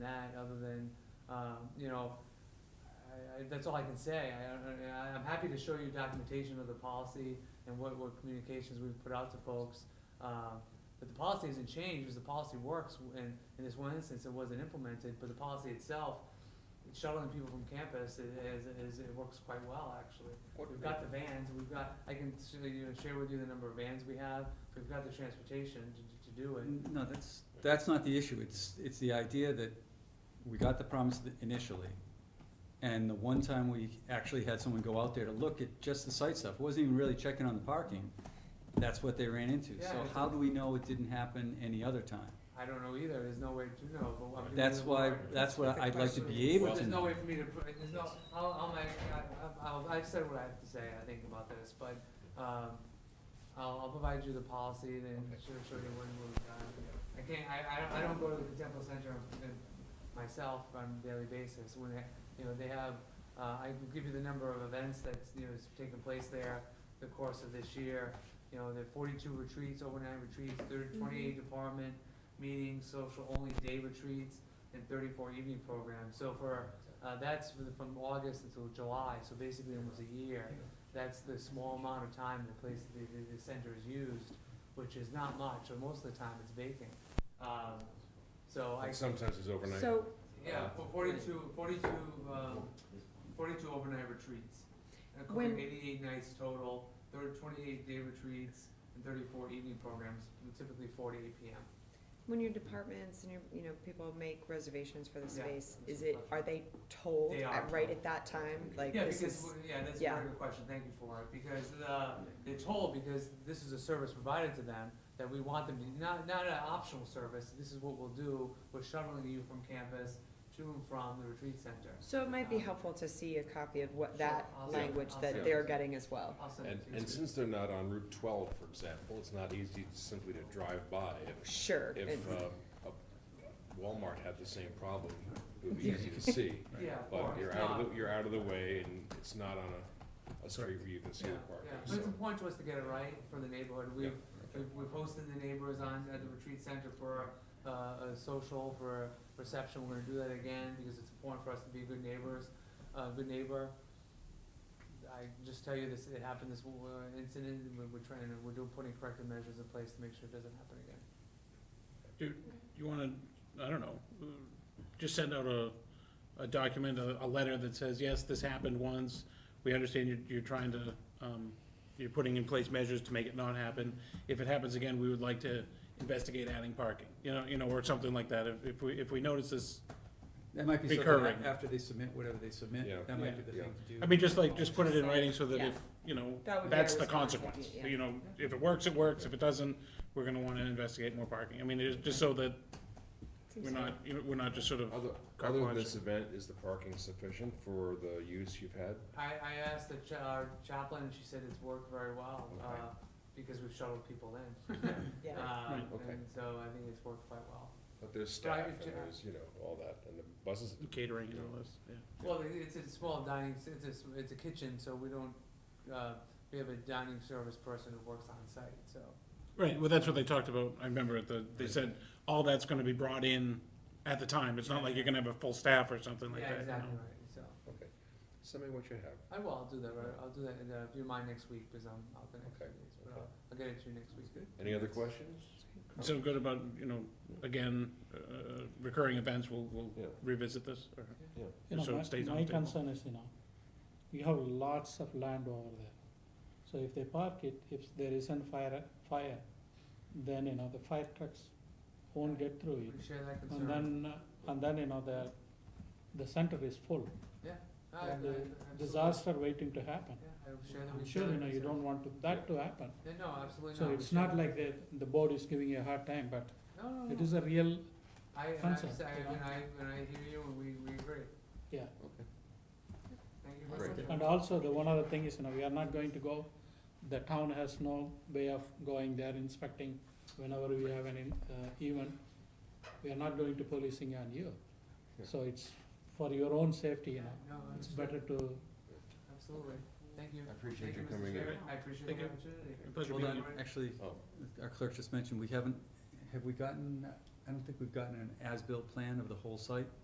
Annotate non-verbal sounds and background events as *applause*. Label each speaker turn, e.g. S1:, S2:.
S1: that, other than, um, you know, I, I, that's all I can say. I, don't- I, I'm happy to show you documentation of the policy and what, what communications we've put out to folks. Um, but the policy hasn't changed, because the policy works, and in this one instance, it wasn't implemented, but the policy itself, shuttling people from campus i- is, is, it works quite well, actually.
S2: What-
S1: We've got the vans, we've got, I can s- you know, share with you the number of vans we have, we've got the transportation to, to do it.
S3: No, that's, that's not the issue, it's, it's the idea that we got the promise that initially, and the one time we actually had someone go out there to look at just the site stuff, wasn't even really checking on the parking, that's what they ran into,
S1: Yeah,
S3: so
S1: it's-
S3: how do we know it didn't happen any other time?
S1: I don't know either, there's no way to know, but I'm. giving
S3: That's
S1: you the
S3: why,
S1: warrant.
S3: that's what I'd like to be able
S1: Well,
S3: to
S1: there's no
S3: know.
S1: way for me to, put- there's no, I'll, I'll make, I- I'll, I've said what I have to say, I think, about this, but, um, I'll, I'll provide you the policy and then show, show you when we're done. I can't, I, I don't, I don't go to the Contempo Center uh, myself on a daily basis, when they, you know, they have, uh, I can give you the number of events that's, you know, has taken place there the course of this year. You know, there are forty-two retreats, overnight retreats, there are twenty-eight department meetings, social-only day retreats, and thirty-four evening programs. So for, uh, that's for the- from August until July, so basically almost a year. That's the small amount of time the place, the, the, the center is used, which is not much, or most of the time it's vacant. Um, so I,
S4: And sometimes it's overnight.
S5: So,
S1: yeah, for 42 42, um, forty-two overnight retreats. And covering
S5: When-
S1: eighty-eight nights total, there are twenty-eight day retreats and thirty-four evening programs, typically four to eight P M.
S5: when your departments and your, you know, people make reservations for the
S1: Yeah,
S5: space,
S1: that's
S5: is
S1: a
S5: it,
S1: question.
S5: are they told
S1: They are
S5: at, right
S1: told.
S5: at that time, like
S1: Yeah,
S5: this
S1: because,
S5: is,
S1: w- yeah, that's a
S5: yeah.
S1: very good question, thank you for it, because the, they're told, because this is a service provided to them, that we want them to, not, not an optional service, this is what we'll do, we're shuttling you from campus to and from the retreat center.
S5: so it might be
S1: Um,
S5: helpful to see a copy of what
S1: sure,
S5: that
S1: I'll send-
S5: language
S1: I'll
S5: that
S1: send
S5: they're
S1: it.
S5: getting as well.
S1: I'll send
S4: And,
S1: it to you.
S4: and since they're not on Route twelve, for example, it's not easy simply to drive by. If,
S5: Sure,
S4: if
S5: and-
S4: uh, a Walmart had the same problem, it would be easy to see.
S1: *laughs* Yeah, of
S4: But
S1: course,
S4: you're out of, the you're out of the way and it's not on a, a street where you can see
S1: Yeah,
S4: the
S1: yeah,
S4: parking,
S1: but it's
S4: so.
S1: important to us to get it right for the neighborhood, we've, we've, we've hosted the neighbors on, at the retreat center for, uh, a social, for reception, we're gonna do that again, because it's important for us to be good neighbors, uh, good neighbor. I just tell you this, it happened, this w- uh, incident, and we're, we're trying, to- we're doing, putting corrective measures in place to make sure it doesn't happen again.
S6: You wanna, I don't know, uh, just send out a, a document, a, a letter that says, yes, this happened once. We understand you're, you're trying to, um, you're putting in place measures to make it not happen. If it happens again, we would like to investigate adding parking, you know, you know, or something like that. If, if we, if we notice this,
S3: That might be
S6: Recurring.
S3: something, after they submit whatever they submit,
S4: Yeah.
S3: that might be the
S4: Yeah.
S3: thing to do.
S6: I mean, just like, just put it in writing so that
S5: Yeah.
S6: if, you know,
S5: That would be
S6: that's
S5: our
S6: the
S5: response, would
S6: consequence.
S5: be- yeah.
S6: You know, if it works, it works. If it doesn't, we're gonna wanna investigate more parking. I mean, it's just so that
S5: Seems
S6: we're
S5: fair.
S6: not, you know, we're not just sort of.
S4: Other,
S6: Car
S4: other than
S6: wash.
S4: this event, is the parking sufficient for the use you've had?
S1: I, I asked the cha- our chaplain, and she said it's worked very well,
S4: Okay.
S1: uh, because we've shuttled people in.
S5: Yeah.
S1: Um,
S4: Okay.
S1: and so I think it's worked quite well.
S4: But there's staff
S1: Right,
S4: and
S1: yeah.
S4: there's, you know, all that, and the buses,
S6: catering and all this, yeah.
S1: Well, it- it's a small dining, s- it's a, s- it's a kitchen, so we don't, uh, we have a dining service person who works on site, so.
S6: Right, well, that's what they talked about, I remember at the, they said, all that's gonna be brought in at the time, it's not like you're gonna have a full staff or something like
S1: Yeah,
S6: that, you
S1: exactly
S6: know.
S1: right, so.
S4: okay. Send me what you have.
S1: I will, I'll do that, right, I'll do that, in, uh, if you mind next week, because I'm out the next few
S4: Okay,
S1: days, but
S4: okay.
S1: I'll, I'll get it to you next week.
S4: Any other questions?
S6: So good about, you know, again, uh, recurring events, we'll, we'll
S4: Yeah.
S6: revisit this, or,
S4: Yeah.
S7: You know,
S6: So it
S7: my-
S6: stays on
S7: my
S6: the table.
S7: concern is, you know, you have lots of land over there. So if they park it, if there isn't fire, fire, then, you know, the fire trucks won't get through it.
S1: We share that concern.
S7: And then, uh, and then, you know, the, the center is full,
S1: I- I-
S7: and the
S1: absolutely.
S7: disaster waiting to happen.
S1: Yeah, I will share that,
S7: I'm
S1: we
S7: sure,
S1: share that
S7: you know, you
S1: concern.
S7: don't want to- that to happen.
S1: Yeah, No, absolutely not.
S7: So
S1: We
S7: it's
S1: share that.
S7: not like the, the board is giving you a hard time, but
S1: No, no, Oh, no.
S7: it is a real,
S1: I, and I,
S7: concept,
S1: say-
S7: you know.
S1: and I, and I hear you, and we, we agree.
S7: Yeah.
S4: Okay.
S1: Thank you
S4: Great.
S1: very much.
S7: And also, the one other thing is, you know, we are not going to go, the town has no way of going there inspecting whenever we have an, in- uh, event. We are not going to policing on you.
S4: Yeah.
S7: So it's for your own safety, you
S1: Yeah,
S7: know,
S1: No,
S7: it's
S1: understood.
S7: better to,
S1: Absolutely. Thank you.
S4: I appreciate
S1: Thank
S4: you
S1: Mr.
S4: coming in.
S1: Chairman. I appreciate
S6: Thank
S1: the
S6: you.
S1: opportunity.
S6: pleasure
S3: Well,
S6: meeting
S3: then,
S4: Um,
S6: you.
S1: Right.
S3: Actually,
S4: Oh.
S3: our clerk just mentioned, we haven't, have we gotten I don't think we've gotten an as-built plan of the whole site.